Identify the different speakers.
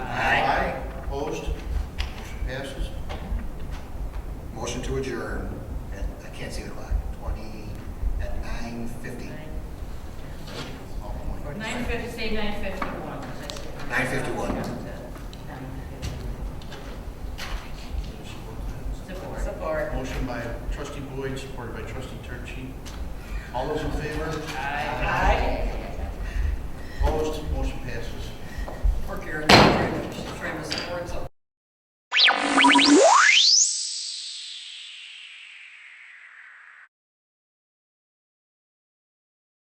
Speaker 1: Nine fifty, say nine fifty-one, because I said.
Speaker 2: 9:51.
Speaker 1: Support.
Speaker 3: Support.
Speaker 4: Motion by trustee Boyd, supported by trustee Turchi. All those in favor?
Speaker 1: Aye.
Speaker 3: Aye.
Speaker 4: Opposed? Motion passes.
Speaker 3: Or Gary.